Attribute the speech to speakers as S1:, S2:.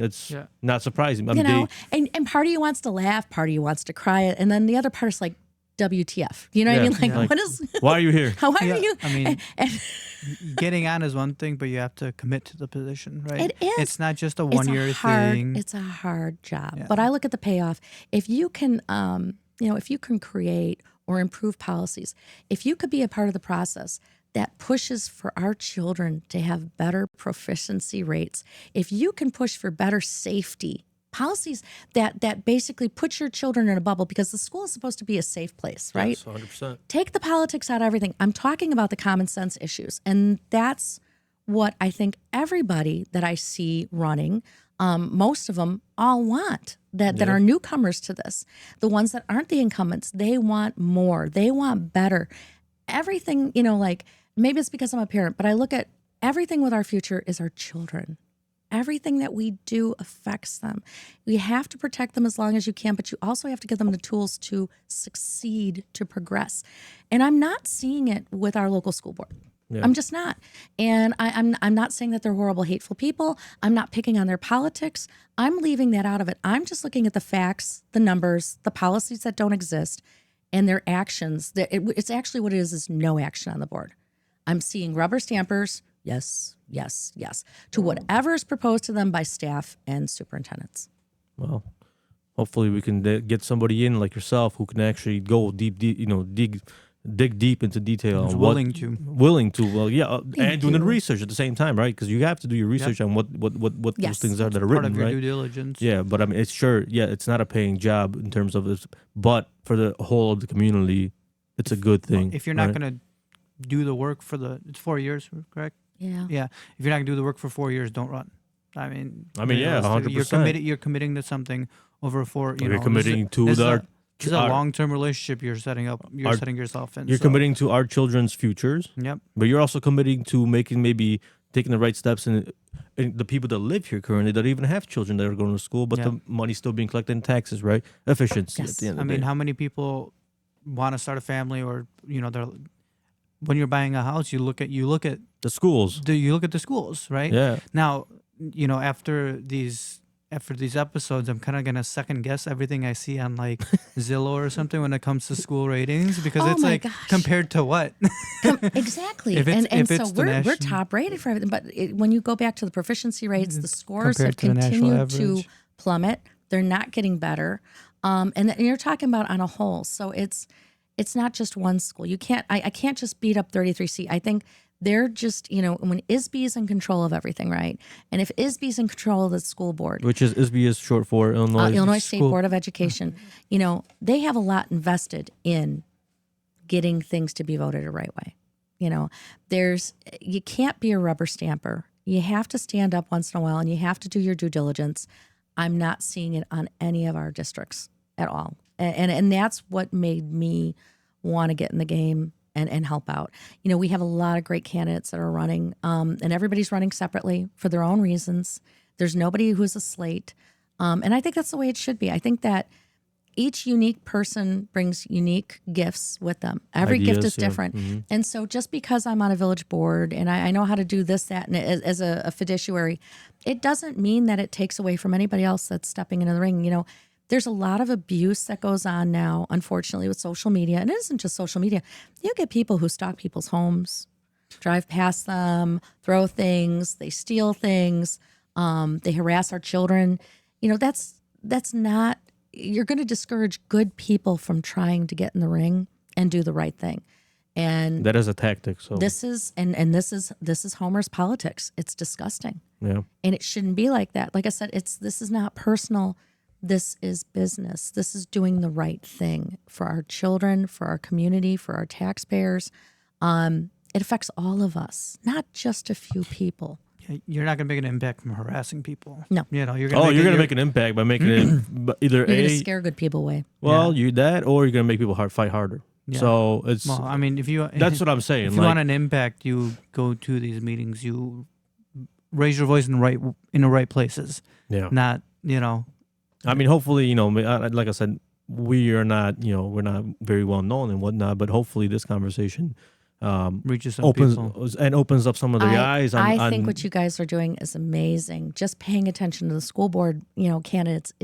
S1: That's
S2: Yeah.
S1: not surprising. I
S3: you
S1: mean,
S3: know,
S1: they-
S3: and, and part of you wants to laugh, part of you wants to cry, and then the other part is like, WTF? You know what
S1: Yeah,
S3: I mean? Like,
S1: like-
S3: what is?
S1: why are you here?
S3: How are
S2: Yeah,
S3: you?
S2: I mean,
S3: and, and
S2: Getting on is one thing, but you have to commit to the position, right?
S3: It is.
S2: It's not just a one
S3: it's a
S2: year
S3: hard,
S2: thing.
S3: It's a hard job,
S2: Yeah.
S3: but I look at the payoff. If you can, um, you know, if you can create or improve policies, if you could be a part of the process that pushes for our children to have better proficiency rates, if you can push for better safety policies that that basically put your children in a bubble because the school is supposed to be a safe place, right?
S1: Yes, 100%.
S3: take the politics out of everything. I'm talking about the common sense issues. And that's what I think everybody that I see running, um, most of them all want that, that are newcomers to this. The ones that aren't the incumbents, they want more, they want better. Everything, you know, like maybe it's because I'm a parent, but I look at everything with our future is our children. Everything that we do affects them. You have to protect them as long as you can, but you also have to give them the tools to succeed, to progress. And I'm not seeing it with our local school board. I'm just not. And I, I'm I'm not saying that they're horrible, hateful people. I'm not picking on their politics. I'm leaving that out of it. I'm just looking at the facts, the numbers, the policies that don't exist, and their actions. That it, it's actually what it is is no action on the board. I'm seeing rubber stampers. Yes, yes, yes. To whatever is proposed to them by staff and superintendents.
S1: Well, hopefully we can de- get somebody in like yourself who can actually go deep, deep you know, dig, dig deep into detail.
S2: Who's
S1: on what-
S2: willing to.
S1: willing to. Well, yeah, uh, and
S3: Thank
S1: doing the
S3: you.
S1: research at the same time, right? Because you have to do your research on what what what what
S3: Yes.
S1: those things are that are
S2: Part
S1: written,
S2: of your
S1: right?
S2: due diligence.
S1: Yeah, but I mean, it's sure. Yeah, it's not a paying job in terms of this, but for the whole of the community, it's a good
S2: Well,
S1: thing.
S2: If you're not
S1: right?
S2: going to do the work for the, it's four years, correct?
S3: Yeah.
S2: Yeah. If you're not going to do the work for four years, don't run. I mean,
S1: I mean, yeah,
S2: realistically, You're
S1: 100%.
S2: committed. You're committing to something over four. You
S1: You're
S2: know,
S1: committing to
S2: this is,
S1: our-
S2: a, this is a
S1: our-
S2: long-term relationship you're setting up. You're
S1: our-
S2: setting yourself in.
S1: you're
S2: so-
S1: committing to our children's futures,
S2: Yep.
S1: but you're also committing to making maybe taking the right steps and. And the people that live here currently that even have children that are going to school, but
S2: Yeah.
S1: the money's still being collected in taxes, right? Efficiency at
S3: Yes.
S1: the end
S2: I
S1: of the
S2: mean,
S1: day.
S2: how many people want to start a family, or you know, they're when you're buying a house, you look at you look at
S1: the schools.
S2: do you look at the schools, right?
S1: Yeah.
S2: Now, you know, after these after these episodes, I'm kind of gonna second guess everything I see on like Zillow or something when it comes to school ratings because
S3: Oh
S2: it's
S3: my
S2: like
S3: gosh.
S2: compared to what?
S3: exactly.
S2: If it's-
S3: and and
S2: if
S3: so
S2: it's the
S3: we're, we're
S2: national-
S3: top rated for everything. But it, when you go back to the proficiency rates, the scores have
S2: compared to the national
S3: continued to
S2: average.
S3: plummet. They're not getting better. Um, and, th- and you're talking about on a whole. So it's it's not just one school. You can't I, I can't just beat up 33C. I think they're just, you know, when ISB is in control of everything, right? And if ISB is in control of the school board,
S1: Which is ISB is short for Illinois,
S3: uh, Illinois State
S1: School-
S3: Board of Education, you know, they have a lot invested in getting things to be voted a right way. You know, there's you can't be a rubber stamper. You have to stand up once in a while and you have to do your due diligence. I'm not seeing it on any of our districts at all. And and, and that's what made me want to get in the game and, and help out. You know, we have a lot of great candidates that are running, um, and everybody's running separately for their own reasons. There's nobody who's a slate. Um, and I think that's the way it should be. I think that each unique person brings unique gifts with them. Every gift
S1: Ideas,
S3: is
S1: yeah. Mm-hmm.
S3: different. And so just because I'm on a village board and I, I know how to do this, that, and as, as a, a fiduciary, it doesn't mean that it takes away from anybody else that's stepping into the ring. You know, there's a lot of abuse that goes on now, unfortunately, with social media. And it isn't just social media. You get people who stalk people's homes, drive past them, throw things, they steal things, um, they harass our children. You know, that's that's not you're going to discourage good people from trying to get in the ring and do the right thing. And
S1: That is a tactic. So
S3: this is and and this is this is Homer's politics. It's disgusting
S1: yeah, Oh,
S3: and it shouldn't be like that like i said it's this is not personal this is business this is doing the right thing for our children for our community for our taxpayers um, it affects all of us not just a few people
S2: Yeah, You're not gonna make an impact from harassing people.
S3: No.
S2: You know, you're gonna.
S1: Oh,
S2: make
S1: you're
S2: it
S1: gonna
S2: your-
S1: make an impact by making it b- either
S3: you're going to
S1: a
S3: scare good people away
S1: well, you that, or you're gonna make people hard fight harder. So it's
S2: Well, I mean, if you
S1: that's what I'm saying.
S2: if you
S1: like,
S2: want an impact, you go to these meetings. You raise your voice in the right in the right places,
S1: yeah,
S2: not you know.
S1: I mean, hopefully, you know, ma- I- I- like I said, we are not, you know, we're not very well known and whatnot, but hopefully, this conversation um,
S2: reaches some
S1: opens
S2: people.
S1: and opens up some of their
S3: I,
S1: eyes. On,
S3: I think
S1: on-
S3: what you guys are doing is amazing. Just paying attention to the school board, you know, candidates